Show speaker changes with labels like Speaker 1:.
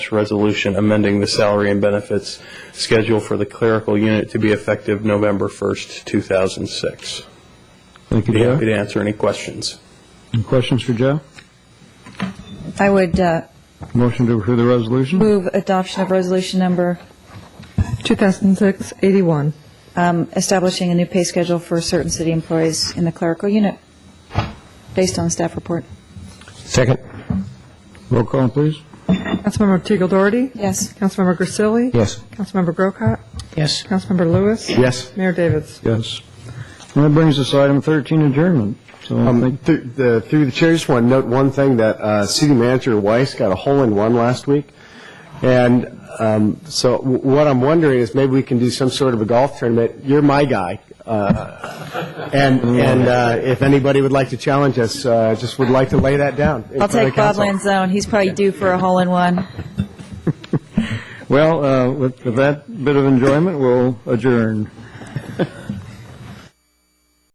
Speaker 1: resolution amending the salary and benefits schedule for the clerical unit to be effective November 1st, 2006.
Speaker 2: Thank you,
Speaker 1: Be happy
Speaker 2: Joe.
Speaker 1: to answer any questions.
Speaker 2: Any questions for Joe?
Speaker 3: I would uh,
Speaker 2: Motion to approve the resolution?
Speaker 3: move adoption of resolution number
Speaker 4: 2006-81.
Speaker 3: um, establishing a new pay schedule for certain city employees in the clerical unit, based on the staff report.
Speaker 5: Second.
Speaker 2: Roll call, please.
Speaker 4: Councilmember Teagle Doherty?
Speaker 3: Yes.
Speaker 4: Councilmember Grisilli?
Speaker 5: Yes.
Speaker 4: Councilmember Grocott?
Speaker 5: Yes.
Speaker 4: Councilmember Lewis?
Speaker 5: Yes.
Speaker 4: Mayor Davis?
Speaker 2: Yes. And that brings us to item 13, adjournment. So I
Speaker 5: Um,
Speaker 2: think
Speaker 5: through the through the chair, just want to note one thing, that uh, city manager Weiss got a hole-in-one last week. And um, so w- what I'm wondering is maybe we can do some sort of a golf tournament. You're my guy. Uh, And, and uh, if anybody would like to challenge us, uh, just would like to lay that down. in
Speaker 3: I'll
Speaker 5: front of
Speaker 3: take Bob
Speaker 5: council.
Speaker 3: Lanzone, he's probably due for a hole-in-one.
Speaker 2: Well, uh, with with that bit of enjoyment, we'll adjourn.